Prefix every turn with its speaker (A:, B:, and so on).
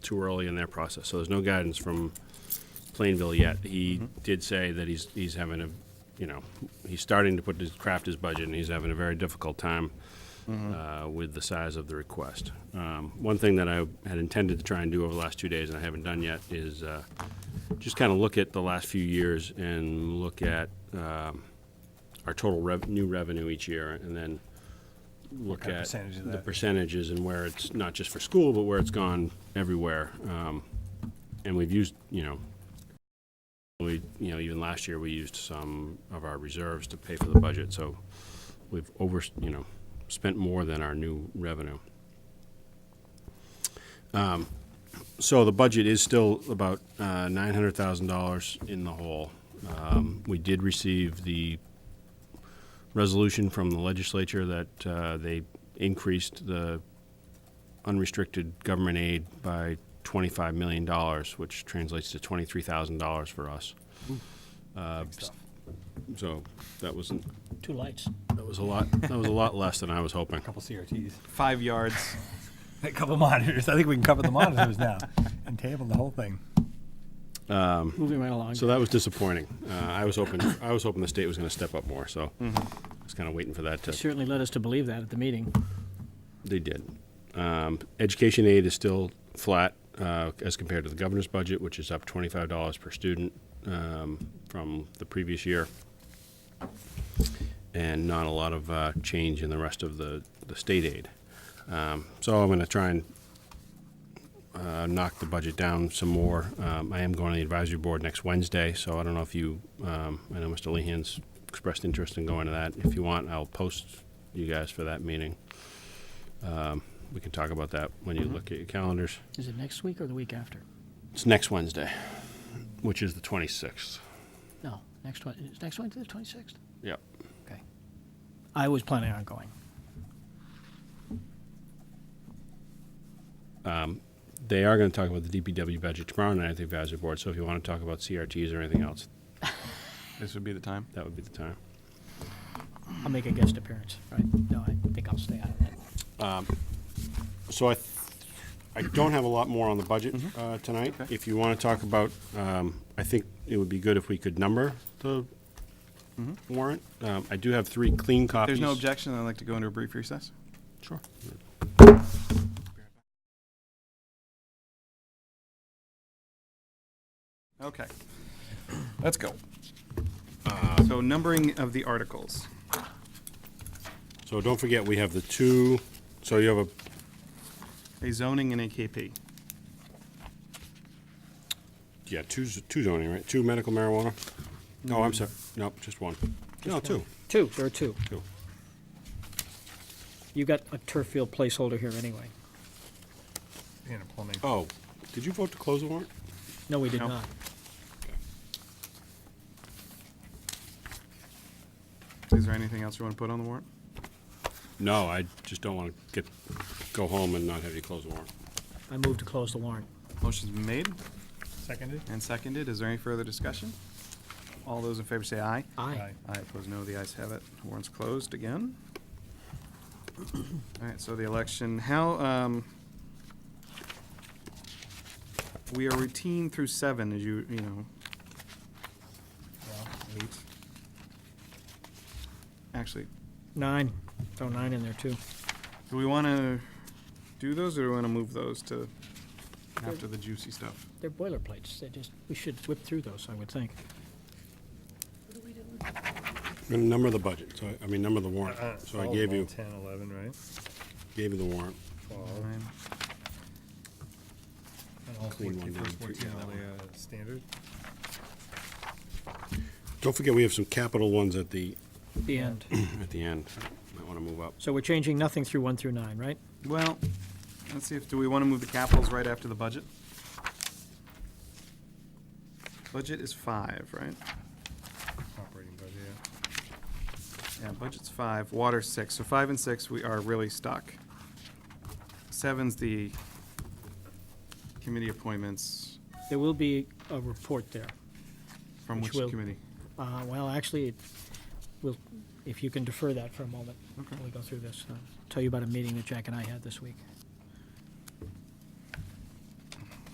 A: too early in their process, so there's no guidance from Plainville yet. He did say that he's, he's having a, you know, he's starting to put his, craft his budget, and he's having a very difficult time
B: Mm-hmm.
A: uh, with the size of the request. Um, One thing that I had intended to try and do over the last two days, and I haven't done yet, is uh, just kind of look at the last few years and look at um, our total rev, new revenue each year, and then look
B: kind of
A: at
B: percentage of
A: the
B: that?
A: percentages and where it's, not just for school, but where it's gone everywhere. Um, And we've used, you know, we, you know, even last year, we used some of our reserves to pay for the budget, so we've over, you know, spent more than our new revenue. Um, So the budget is still about uh, $900,000 in the hole. Um, We did receive the resolution from the legislature that uh, they increased the unrestricted government aid by $25 million, which translates to $23,000 for us. Uh, So that was, not
C: Two lights.
A: that was a lot, that was a lot less than I was hoping.
B: A couple CRTs,
D: Five yards.
B: a couple monitors. I think we can cover the monitors now and table the whole thing.
C: Moving right along.
A: So that was disappointing. Uh, I was hoping, I was hoping the state was going to step up more, so I was kind of waiting for that to.
C: Certainly led us to believe that at the meeting.
A: They did. Um, education aid is still flat uh, as compared to the governor's budget, which is up twenty-five dollars per student um, from the previous year, and not a lot of uh, change in the rest of the the state aid. Um, so I'm going to try and uh, knock the budget down some more. Um, I am going to the advisory board next Wednesday, so I don't know if you. Um, I know Mr. Lehan's expressed interest in going to that. If you want, I'll post you guys for that meeting. We can talk about that when you look at your calendars.
C: Is it next week or the week after?
A: It's next Wednesday, which is the 26th.
C: No, next one. Is next one to the 26th?
A: Yep.
C: Okay. I was planning on going.
A: They are going to talk about the DPW budget tomorrow night at the advisory board. So if you want to talk about CRTs or anything else,
D: This would be the time.
A: that would be the time.
C: I'll make a guest appearance. Right? No, I think I'll stay out of that.
A: Um, So I, th- I don't have a lot more on the budget uh, tonight.
D: Okay.
A: If you want to talk about, um, I think it would be good if we could number the warrant. Um, I do have three clean copies.
D: There's no objection. I'd like to go into a brief recess.
A: Sure.
D: Okay. Let's go. Uh, So numbering of the articles.
A: So don't forget, we have the two. So you have a
D: A zoning and a KP.
A: Yeah, two, z- two zoning, right? Two medical marijuana? No, I'm sorry, nope, just one. No, two,
C: Two. There are two.
A: two.
C: You got a turf field placeholder here anyway.
B: And a plumbing.
A: Oh, did you vote to close the warrant?
C: No, we did
D: No.
C: not.
D: Is there anything else you want to put on the warrant?
A: No, I just don't want to get, go home and not have you close the warrant.
C: I moved to close the warrant.
D: Motion's been made
B: Seconded?
D: and seconded. Is there any further discussion? All those in favor say aye.
C: Aye.
D: Aye, opposed, no. The ayes have it. Warrant's closed again. All right, so the election, how, um, we are routine through seven, as you, you know. Eight. Actually,
C: Nine. Throw nine in there too.
D: do we want to do those, or do we want to move those to after the juicy stuff?
C: They're boilerplates. They just we should whip through those. I would think.
A: I'm gonna number the budget, so, I- I mean, number the warrant. So I gave you,
B: Ten, eleven, right?
A: gave you the warrant.
B: Twelve.
D: Nine.
B: And all
A: Clean one
B: 14,
A: down,
B: first
A: put
B: 14
A: the
B: are
A: other
B: the, uh, standard.
A: Don't forget, we have some capital ones at the,
C: The end.
A: at the end. Might want to move up.
C: So we're changing nothing through one through nine, right?
D: Well, let's see if, do we want to move the capitals right after the budget? Budget is five, right?
B: Operating budget, yeah.
D: Yeah, budget's five, water's six, so five and six, we are really stuck. Seven's the committee appointments,
C: There will be a report there.
D: from
C: Which
D: which
C: will-
D: committee?
C: Uh, well, actually, it will, if you can defer that for a moment, while we go through this. uh, Tell you about a meeting that Jack and I had this week.